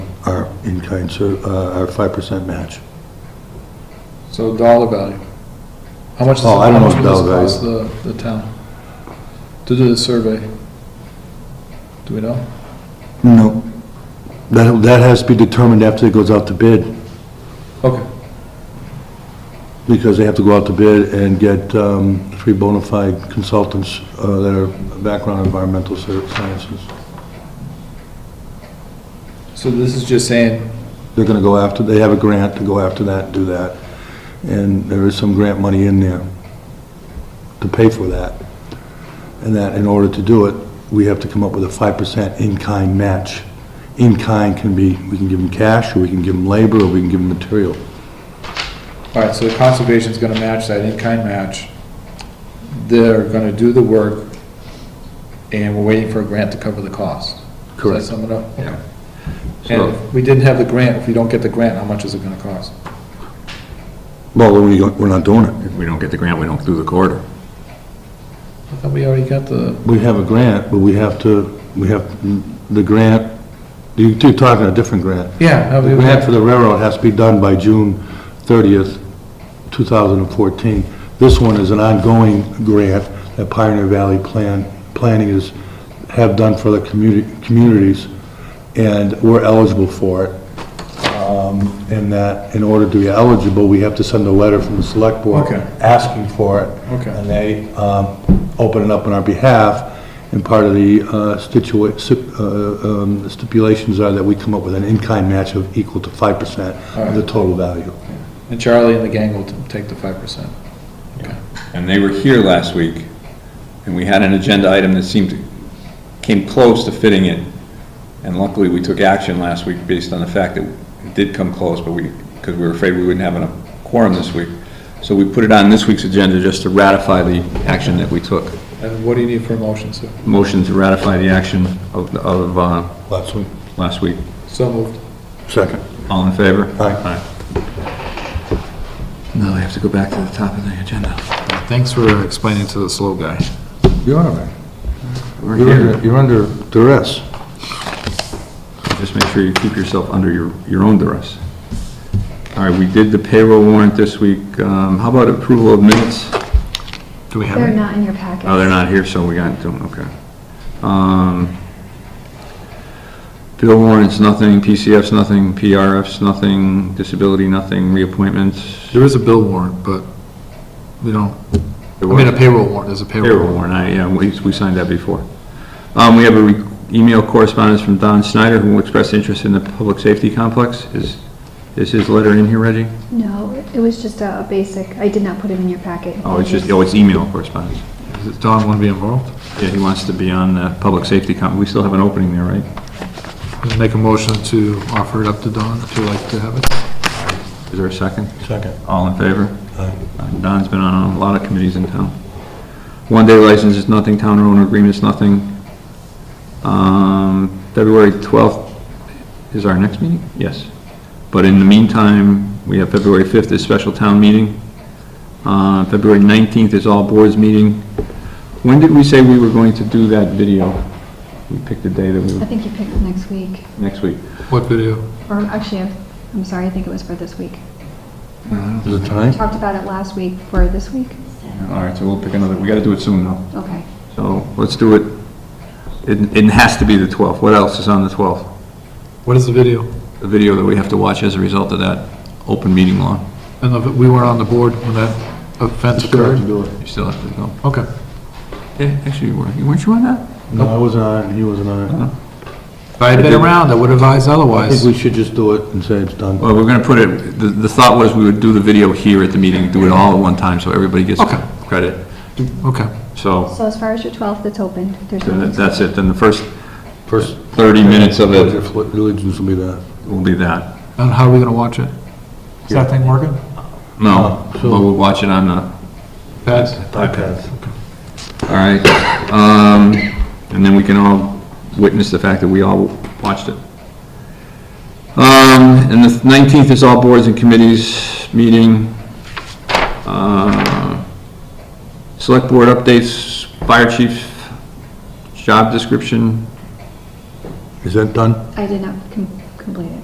our in-kind, ser- uh, our 5% match. So dollar value. How much does, Oh, I how don't know much would this dollar value. cost the, the town to do the survey? Do we know? No. That, that has to be determined after it goes out to bid, Okay, because they have to go out to bid and get um, three bona fide consultants uh, that are background in environmental ser- sciences. so this is just saying, They're going to go after, they have a grant to go after that, do that. And there is some grant money in there to pay for that. And that, in order to do it, we have to come up with a 5% in-kind match. In-kind can be, we can give them cash, or we can give them labor, or we can give them material. all right, so the conservation's gonna match that in-kind match. They're gonna do the work, and we're waiting for a grant to cover the cost. Correct. Does that sum it up? Yeah. And So, if we didn't have the grant, if we don't get the grant, how much is it gonna cost? well, then we don't- we're not doing it. If we don't get the grant, we don't do the corridor. I thought we already got the, We have a grant, but we have to, we have, the grant, you two talking a different grant. yeah. The grant for the railroad has to be done by June 30th, 2014. This one is an ongoing grant that Pioneer Valley Plan, Planning is, have done for the community, communities, and we're eligible for it. Um, And that, in order to be eligible, we have to send a letter from the select board Okay. asking for it. Okay. And they um, open it up on our behalf, and part of the uh, stitua- stip- uh, um, stipulations are that we come up with an in-kind match of equal to 5% of the total value. And Charlie and the gang will t- take the five percent. And they were here last week, and we had an agenda item that seemed, to- came close to fitting it. And luckily, we took action last week based on the fact that it did come close, but we, because we were afraid we wouldn't have enough quorum this week. So we put it on this week's agenda just to ratify the action that we took. And what do you need for a motion, sir? Motion to ratify the action of, of, uh, Last one. last week. So moved. Second. All in favor? Aye. Aye. Now I have to go back to the top of the agenda. Thanks for explaining to the slow guy. You're all right. We're You're here. under- You're under duress. Just make sure you keep yourself under your, your own duress. All right, we did the payroll warrant this week. Um, how about approval of minutes? Do we They're not in your packet. Oh, they're not here, so we got to, okay. Um, bill warrants, nothing, PCFs, nothing, PRFs, nothing, disability, nothing, reappointments. There is a bill warrant, but we don't, I There mean, a was- payroll warrant, there's a Payroll payroll warrant. warrant, I, yeah, we, we signed that before. Um, we have a re- email correspondence from Don Snyder, who expressed interest in the public safety complex. Is, is his letter in here, Reggie? No, it was just a a basic, I did not put it in your packet. Oh, it's just, oh, it's email correspondence. Does Don want to be involved? Yeah, he wants to be on the public safety com, we still have an opening there, right? Make a motion to offer it up to Don, if you'd like to have it. Is there a second? Second. All in favor? Aye. Don's been on a lot of committees in town. One-day license is nothing, town owner agreement's nothing. Um, February 12th is our next meeting? Yes. But in the meantime, we have February 5th is special town meeting. Uh, February 19th is all boards meeting. When did we say we were going to do that video? We picked a day that we, I were think you picked next week, next week. What video? or actually, I'm- I'm sorry, I think it was for this week. Uh, Is it We time? talked about it last week for this week? All right, so we'll pick another, we gotta do it soon though. Okay. So let's do it, it, it has to be the 12th. What else is on the 12th? What is the video? The video that we have to watch as a result of that open meeting law. And if we weren't on the board when that offense occurred? do it. You still have to go. Okay. Yeah, actually, you weren't, you- weren't you on that? No, I wasn't on it, he wasn't on it. If I had been around, I would advise I think otherwise. we should just do it and say it's done. Well, we're gonna put it, the, the thought was we would do the video here at the meeting, do it all at one time, so everybody gets Okay. credit. Okay. So, So as far as your 12th, it's open. There's no... then that's it, then the first First 30 minutes of pledge it of allegiance will be that. will be that. And how are we going to watch it? Is that thing working? No, Oh, but so- we'll watch it on the, Pat? iPads. all right. Um, and then we can all witness the fact that we all watched it. Um, and the 19th is all boards and committees meeting. Uh, Select board updates, fire chief, job description, Is that done? I did not com- complete it.